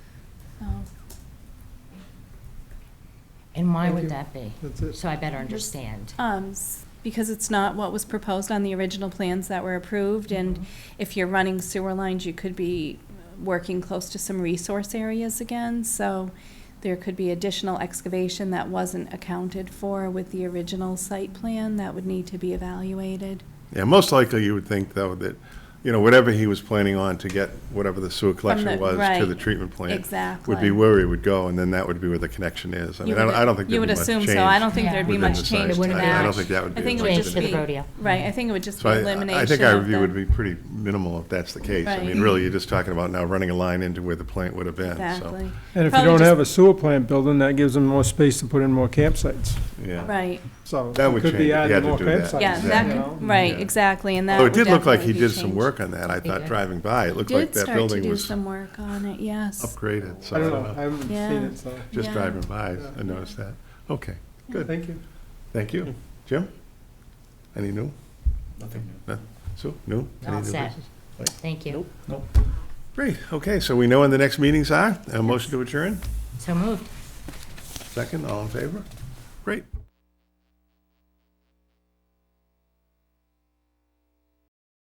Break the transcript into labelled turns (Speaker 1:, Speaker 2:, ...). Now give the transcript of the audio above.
Speaker 1: Oh.
Speaker 2: And why
Speaker 3: Thank
Speaker 2: would
Speaker 3: you. Uh,
Speaker 2: that be?
Speaker 3: That's it.
Speaker 2: So I better understand.
Speaker 1: Um, s- because it's not what was proposed on the original plans that were approved, and if you're running sewer lines, you could be working close to some resource areas again, so there could be additional excavation that wasn't accounted for with the original site plan that would need to be evaluated.
Speaker 4: Yeah, most likely you would think though that, you know, whatever he was planning on to get whatever the sewer
Speaker 1: the-
Speaker 4: collection was to
Speaker 1: right.
Speaker 4: the treatment plant. Would
Speaker 1: Exactly.
Speaker 4: be where he would go and then that would be where the connection is. I
Speaker 1: You
Speaker 4: mean, I don't-
Speaker 1: would-
Speaker 4: I don't think
Speaker 1: you
Speaker 4: there'd
Speaker 1: would
Speaker 4: be much
Speaker 1: assume
Speaker 4: change.
Speaker 1: so. I don't think there'd be
Speaker 4: within
Speaker 1: much
Speaker 4: the
Speaker 1: change
Speaker 4: site.
Speaker 2: wouldn't
Speaker 4: I- I don't
Speaker 2: match.
Speaker 4: think that would
Speaker 1: I
Speaker 4: be.
Speaker 1: think it
Speaker 4: much
Speaker 1: would
Speaker 2: Change
Speaker 1: just
Speaker 2: for
Speaker 4: different.
Speaker 1: be
Speaker 2: the rodeo.
Speaker 1: Right, I think it would just
Speaker 4: So
Speaker 1: be
Speaker 4: I,
Speaker 1: elimination
Speaker 4: I think our
Speaker 1: of
Speaker 4: review
Speaker 1: the-
Speaker 4: would be pretty minimal if that's the case. I
Speaker 1: Right.
Speaker 4: mean, really, you're just talking about now running a line into where the plant would have been, so.
Speaker 1: Exactly,
Speaker 3: And if you
Speaker 1: Probably
Speaker 3: don't
Speaker 1: just-
Speaker 3: have a sewer plant building, that gives them more space to put in more campsites.
Speaker 4: yeah.
Speaker 1: right.
Speaker 3: So
Speaker 4: That
Speaker 3: it
Speaker 4: would
Speaker 3: could
Speaker 4: change if
Speaker 3: be
Speaker 4: you had
Speaker 3: adding
Speaker 4: to
Speaker 3: more
Speaker 4: do that.
Speaker 3: campsites.
Speaker 1: Yeah,
Speaker 4: Exactly.
Speaker 1: that,
Speaker 3: you
Speaker 1: could-
Speaker 3: know?
Speaker 1: right, exactly, and that
Speaker 4: Although
Speaker 1: would
Speaker 4: Oh, it did look like he
Speaker 1: definitely be
Speaker 4: did some
Speaker 2: changed.
Speaker 4: work on that. I
Speaker 2: He
Speaker 4: thought
Speaker 2: did.
Speaker 4: driving by, it looked
Speaker 1: Did
Speaker 4: like that
Speaker 1: start to
Speaker 4: building
Speaker 1: do
Speaker 4: was
Speaker 1: some work on it. Yes.
Speaker 4: upgraded, so
Speaker 3: I don't know, I haven't
Speaker 1: Yeah.
Speaker 3: seen it, so,
Speaker 4: Just
Speaker 1: Yeah.
Speaker 4: driving by,
Speaker 3: Yeah.
Speaker 4: I noticed that. Okay, good.
Speaker 3: thank you.
Speaker 4: Thank you. Jim? Any new?
Speaker 5: Hmm. Nothing new.
Speaker 4: Sue, new? Any
Speaker 2: All
Speaker 4: new
Speaker 2: set.
Speaker 4: business?
Speaker 2: Thank you.
Speaker 4: Great, okay, so we know when the next meetings are. A motion to adjourn?
Speaker 2: So moved.
Speaker 4: Second, all in favor? Great.